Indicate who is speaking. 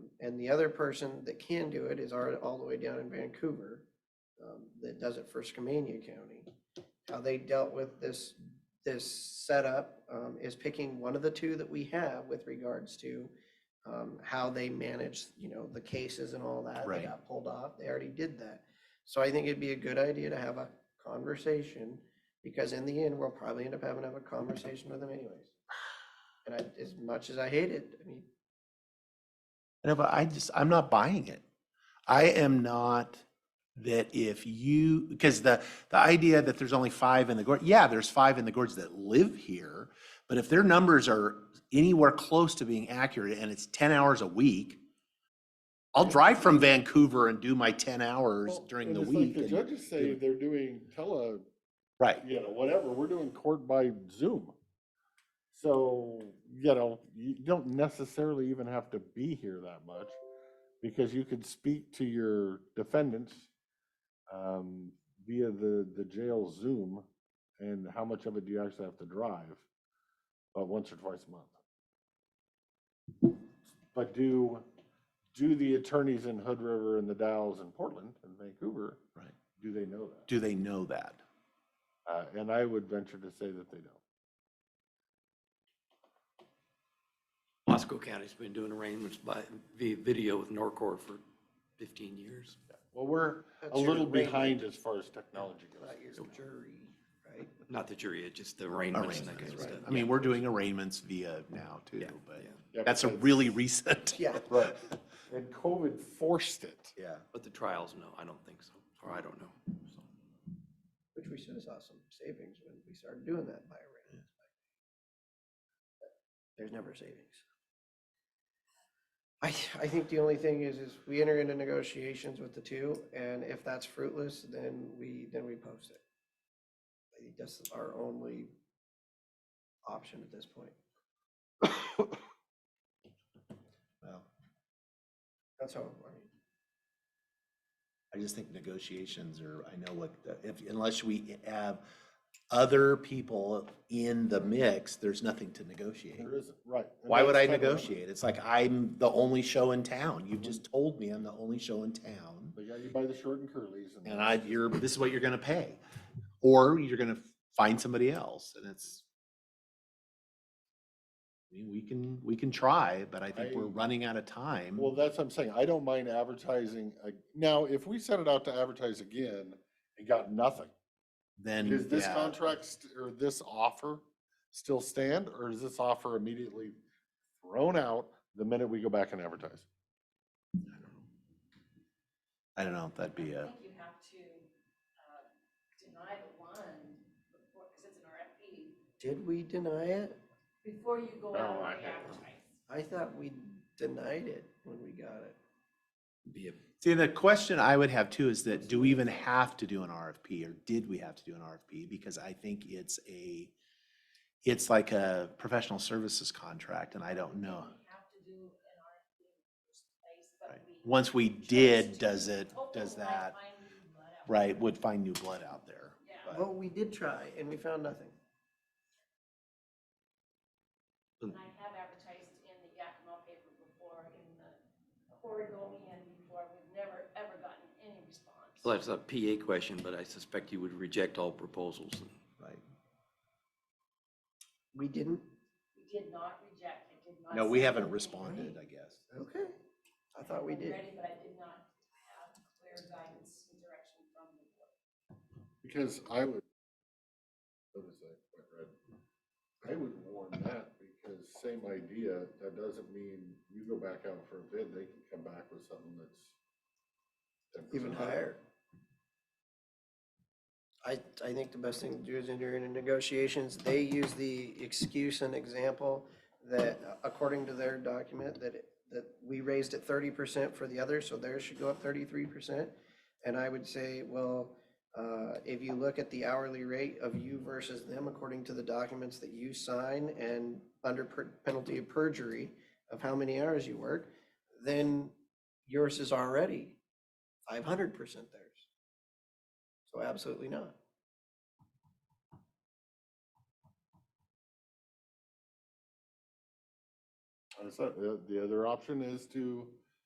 Speaker 1: And the other person that can do it is already all the way down in Vancouver, um, that does it for Skamania County. How they dealt with this, this setup, um, is picking one of the two that we have with regards to um, how they manage, you know, the cases and all that.
Speaker 2: Right.
Speaker 1: They got pulled off. They already did that. So I think it'd be a good idea to have a conversation because in the end, we'll probably end up having to have a conversation with them anyways. And I, as much as I hate it, I mean,
Speaker 2: No, but I just, I'm not buying it. I am not that if you, because the, the idea that there's only five in the gorge, yeah, there's five in the gorge that live here, but if their numbers are anywhere close to being accurate and it's ten hours a week, I'll drive from Vancouver and do my ten hours
Speaker 3: Well,
Speaker 2: during
Speaker 3: and
Speaker 2: the
Speaker 3: it's like
Speaker 2: week.
Speaker 3: The
Speaker 2: and-
Speaker 3: judges say they're doing tele,
Speaker 2: Right.
Speaker 3: you know, whatever, we're doing court by Zoom. So, you know, you don't necessarily even have to be here that much because you could speak to your defendants um, via the, the jail Zoom and how much of it do you actually have to drive? But once or twice a month. But do, do the attorneys in Hood River and the Dalles in Portland and Vancouver?
Speaker 2: Right.
Speaker 3: Do they know that?
Speaker 2: Do they know that?
Speaker 3: Uh, and I would venture to say that they don't.
Speaker 4: Wasco County's been doing arraignments by, via video with Norcor for fifteen years.
Speaker 3: Well, we're
Speaker 1: That's
Speaker 3: a
Speaker 1: your
Speaker 3: little
Speaker 1: arraignment.
Speaker 3: behind as far as technology
Speaker 1: not
Speaker 3: goes.
Speaker 1: your jury, right?
Speaker 4: Not the jury, it's just the arraignments and that kind of
Speaker 2: Arraignments,
Speaker 4: stuff.
Speaker 2: right. I mean, we're doing arraignments via now too,
Speaker 4: Yeah,
Speaker 2: but
Speaker 4: yeah.
Speaker 3: Yeah,
Speaker 2: that's a
Speaker 3: because-
Speaker 2: really recent.
Speaker 1: Yeah.
Speaker 3: Right. And COVID forced it.
Speaker 2: Yeah.
Speaker 4: But the trials, no, I don't think so, or I don't know. so.
Speaker 1: Which we should have saw some savings when we started doing that by arraignment. There's never savings. I, I think the only thing is, is we enter into negotiations with the two, and if that's fruitless, then we, then we post it. I think that's our only option at this point.
Speaker 2: Well,
Speaker 1: That's how, I mean,
Speaker 2: I just think negotiations are, I know what, the- if, unless we have other people in the mix, there's nothing to negotiate.
Speaker 3: There isn't, right. and
Speaker 2: Why would I
Speaker 3: that's federal.
Speaker 2: negotiate? It's like I'm the only show in town.
Speaker 3: Mm-hmm.
Speaker 2: You've just told me I'm the only show in town.
Speaker 3: They got you by the short and curlies.
Speaker 2: And I, you're, this is what you're gonna pay. Or you're gonna find somebody else and it's. I mean, we can, we can try, but I think we're
Speaker 3: I-
Speaker 2: running out of time.
Speaker 3: Well, that's what I'm saying. I don't mind advertising. uh, Now, if we set it out to advertise again and got nothing,
Speaker 2: Then,
Speaker 3: does this
Speaker 2: yeah.
Speaker 3: contract st- or this offer still stand? Or is this offer immediately thrown out the minute we go back and advertise?
Speaker 2: I don't know, if that'd be
Speaker 5: I
Speaker 2: a,
Speaker 5: think you have to uh, deny the one before, because it's an RFP,
Speaker 1: did we deny it?
Speaker 5: before you go
Speaker 3: No,
Speaker 5: out
Speaker 3: I
Speaker 5: and
Speaker 3: haven't.
Speaker 5: advertise.
Speaker 1: I thought we denied it when we got it.
Speaker 4: Be a
Speaker 2: See, the question I would have too is that do we even have to do an RFP or did we have to do an RFP? Because I think it's a, it's like a professional services contract and I don't know.
Speaker 5: You have to do an RFP in the first place, but
Speaker 2: right?
Speaker 5: we.
Speaker 2: Once we
Speaker 5: chose
Speaker 2: did,
Speaker 5: to.
Speaker 2: does it,
Speaker 5: Hopefully
Speaker 2: does
Speaker 5: we might
Speaker 2: that,
Speaker 5: find new blood out.
Speaker 2: right, would find new blood out there.
Speaker 5: Yeah.
Speaker 2: but-
Speaker 1: Well, we did try, and we found nothing.
Speaker 5: And I have advertised in the Yakima paper before, in the Oregonian before, we've never, ever gotten any response.
Speaker 4: Well, that's a PA question, but I suspect you would reject all proposals.
Speaker 2: Right.
Speaker 1: We didn't?
Speaker 5: We did not reject, it did not.
Speaker 2: No, we
Speaker 5: say
Speaker 2: haven't
Speaker 5: anything.
Speaker 2: responded, I guess.
Speaker 1: Okay. I thought we
Speaker 5: I'm
Speaker 1: did.
Speaker 5: ready, But I did not have clear guidance and direction from the board.
Speaker 3: Because I would. what is that, what red? I would warn that because same idea, that doesn't mean you go back out for a bid, they can come back with something that's. 10%
Speaker 1: Even higher. I, I think the best thing to do is enter into negotiations. They use the excuse and example that uh, according to their document, that, it- that we raised it thirty percent for the other, so theirs should go up thirty-three percent. And I would say, well, uh, if you look at the hourly rate of you versus them, according to the documents that you sign and under per- penalty of perjury of how many hours you work, then yours is already five hundred percent theirs. So absolutely not.
Speaker 3: That's not- The, the other option is to